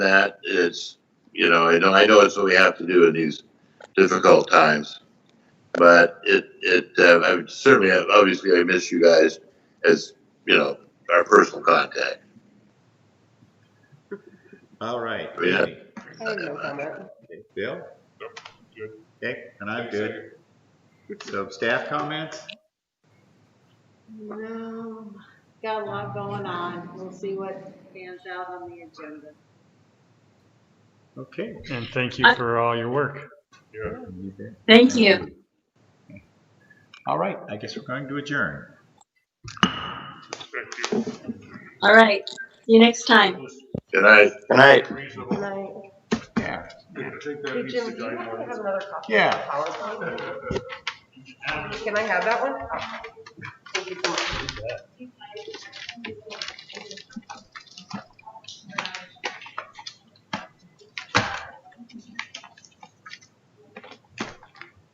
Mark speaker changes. Speaker 1: that. It's, you know, I know, I know it's what we have to do in these difficult times. But it, it, uh, I would certainly, obviously, I miss you guys as, you know, our personal contact.
Speaker 2: All right.
Speaker 1: Yeah.
Speaker 2: Amy,
Speaker 3: I have no comment.
Speaker 2: okay, Bill?
Speaker 4: good.
Speaker 2: Okay, and I'm good. So staff comments?
Speaker 5: No, got a lot going on. We'll see what pans out on the agenda.
Speaker 2: Okay.
Speaker 4: And thank you for all your work.
Speaker 2: you bet.
Speaker 6: Thank you.
Speaker 2: All right, I guess we're going to adjourn.
Speaker 6: All right. See you next time.
Speaker 1: Good night.
Speaker 7: Good night.
Speaker 3: Good night.
Speaker 2: Yeah,
Speaker 3: Hey, Jim, do you happen to have another copy?
Speaker 2: yeah.
Speaker 3: PowerPoint? Can I have that one?